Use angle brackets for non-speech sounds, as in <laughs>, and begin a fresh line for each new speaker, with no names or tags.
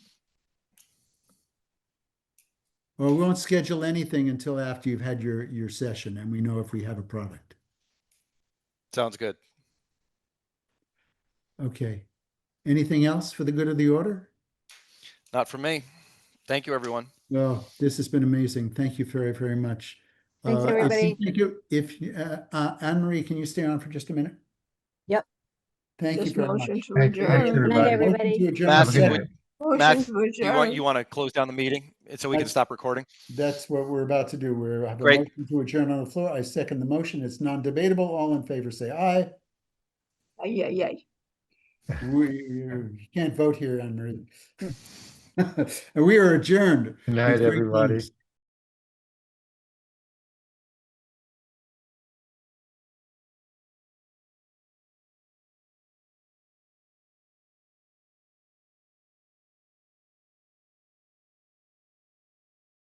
Or we won't schedule anything until after you've had your, your session and we know if we have a product.
Sounds good.
Okay. Anything else for the good of the order?
Not for me. Thank you, everyone.
Well, this has been amazing. Thank you very, very much.
Thanks,
Uh, I think-
everybody.
Thank you. If, you- uh, uh, Anne Marie, can you stay on for just a minute?
Yep.
Thank you
Just
very much.
motion to
Thank you,
adjourn.
thank
Night,
you, everybody.
Motion to
everybody.
adjourn.
Matt,
Good
Second.
night.
would-
Motion
Matt,
to
you want, you
adjourn.
want to close down the meeting so we can
That's-
stop recording?
That's what we're about to do. We're have a
Great.
motion to adjourn on the floor. I second the motion. It's non-debatable. All in favor, say aye.
Yeah, yeah.
We you <laughs> can't vote here, Anne Marie. We are adjourned.
Good night,
With great
everybody.
thanks.